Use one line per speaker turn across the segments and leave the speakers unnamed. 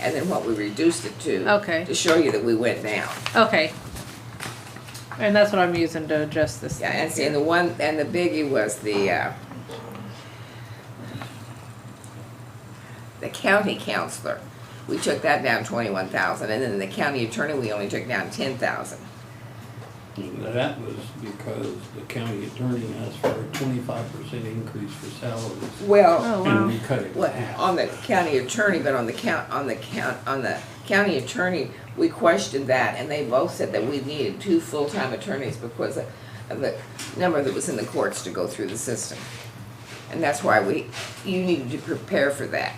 and then what we reduced it to.
Okay.
To show you that we went down.
Okay. And that's what I'm using to adjust this.
Yeah,
thing
and see,
here.
and the one, and the biggie was the, uh, the county counselor. We took that down twenty-one thousand, and then the county attorney, we only took down ten thousand.
That was because the county attorney asked for a twenty-five percent increase for salaries.
Well,
Oh,
And
wow.
we cut it in
what,
half.
on the county attorney, but on the count, on the count, on the county attorney, we questioned that, and they both said that we needed two full-time attorneys because of the number that was in the courts to go through the system. And that's why we, you needed to prepare for that.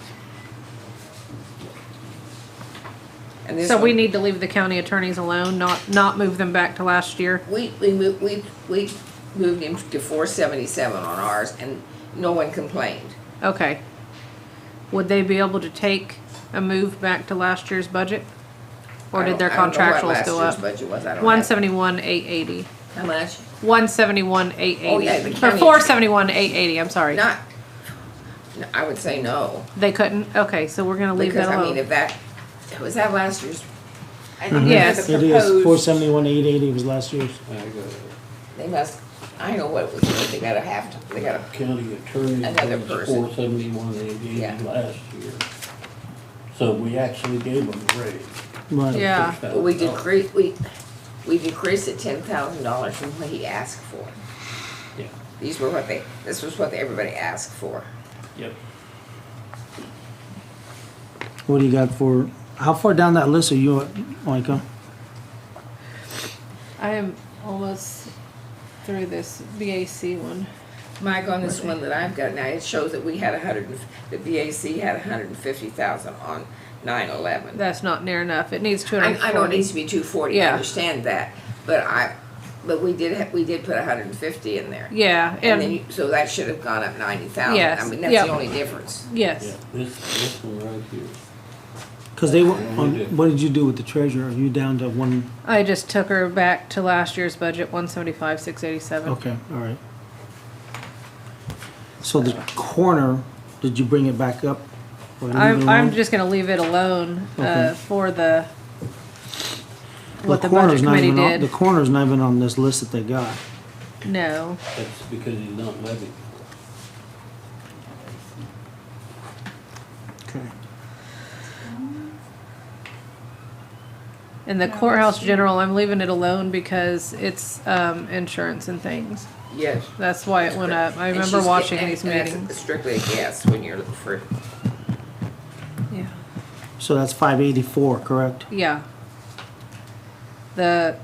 And this
So we
one-
need to leave the county attorneys alone, not, not move them back to last year?
We, we moved, we, we moved him to four seventy-seven on ours, and no one complained.
Okay. Would they be able to take a move back to last year's budget? Or
I
did
don't-
their
I don't know what
contractuals go
Last year's
up?
budget was, I don't have.
One seventy-one, eight eighty.
How much?
One seventy-one, eight
Oh, yeah, the
eighty. Or
county-
four seventy-one, eight eighty, I'm sorry.
Not, no, I would say no,
They couldn't? Okay, so we're gonna leave
because
that
I mean,
alone.
if that, was that last year's,
I think
Yes.
there's a
It is, four
proposed,
seventy-one, eight eighty was last year's.
I got
they must, I know what it was, they gotta have, to- they gotta,
a county attorney
Another
was
person.
four seventy-one eighty
Yeah.
last year. So we actually gave them a raise.
Right.
Yeah.
but we decreased, we, we decreased it ten thousand dollars from what he asked for.
Yeah,
These were what they, this was what everybody asked for.
yep.
What do you got for, how far down that list are you, at, Micah?
I am almost through this BAC one.
Mike, on this one that I've got now, it shows that we had a hundred, and- the VAC had a hundred and fifty thousand on nine eleven.
That's not near enough. It needs two hundred
I, I know it
forty.
needs to be two forty, I
Yeah.
understand that, but I, but we did, ha- we did put a hundred and fifty in there.
Yeah,
And then,
and,
you- so that should have gone up ninety thousand. I
Yes,
mean, that's the
yep.
only difference.
Yeah,
yes.
this, this one right here.
Cause they, were-
Yeah, we do.
on- what did you do with the treasurer? Are you down to one,
I just took her back to last year's budget, one seventy-five, six eighty-seven.
okay, all right. So the corner, did you bring it back up? or leave it
I'm, I'm
alone?
just gonna leave it alone, uh,
Okay.
for the,
The
what the
corner's
budget
not
committee
even on- The
did.
corner's not even on this list that they got.
No,
That's because he's not levying.
Okay.
and the courthouse general, I'm leaving it alone because it's, um, insurance and things.
Yes.
That's why it went up. I
And
remember
she's-
watching
and-
these
and that's
meetings.
Strictly a guess when you're looking for,
Yeah.
So that's five eighty-four, correct?
Yeah. The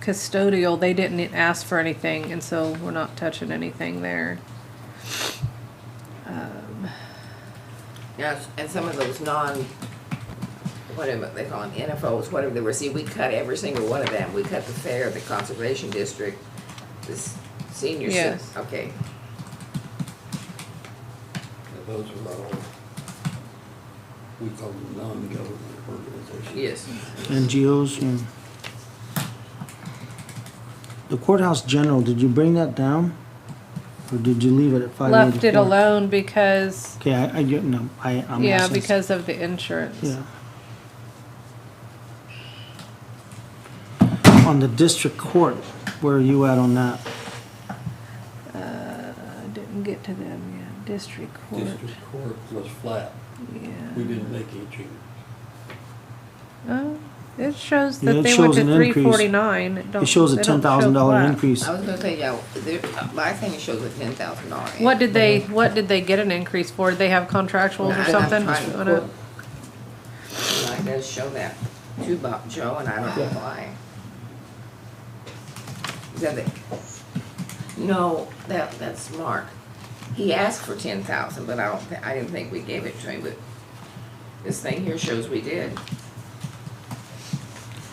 custodial, they didn't ask for anything, and so we're not touching anything there.
yes, and some of those non, whatever they call them, NFOs, whatever they were, see, we cut every single one of them. We cut the fair, the conservation district, this senior center.
Yes.
Okay,
Now, Those are all, we call them non-government organizations.
yes.
NGOs, yeah. The courthouse general, did you bring that down? Or did you leave it at five eighty-four?
Left it alone because,
Okay, I, I get, no, I, I'm.
yeah,
asking-
because of the insurance.
Yeah. On the district court, where are you at on that?
Uh, I didn't get to them yet. District court,
District court was flat. We
yeah.
didn't make any changes.
Oh, It shows
Yeah,
that
it
they went
shows
to
an
three
increase.
forty-nine.
It shows a ten thousand dollar increase.
I was gonna say, yeah, there, my thing shows a ten thousand dollar.
What did they, what did they get an increase for? Did they have contractuals or something? What a-
Mine does show that to Bob Joe, and I don't know why. Is that the, no, that, that's Mark. He asked for ten thousand, but I don't, thi- I didn't think we gave it to him, but this thing here shows we did.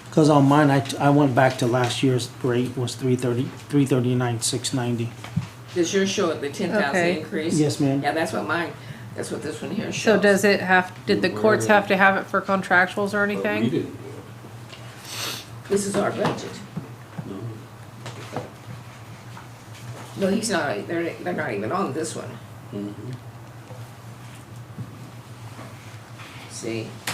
Cause on mine, I, I went back to last year's rate was three thirty, three thirty-nine, six ninety.
Does yours show the ten thousand
Okay.
increase?
Yes, ma'am.
Yeah, that's what mine, that's what this one here shows.
So does it have, did the
Where
courts
is
have
it?
to have it for contractuals or
But Oh, We
anything?
didn't do it,
This is our budget.
no.
No, he's not, they're, they're not even on
Mm-hmm.
this one.
Mhm.
See,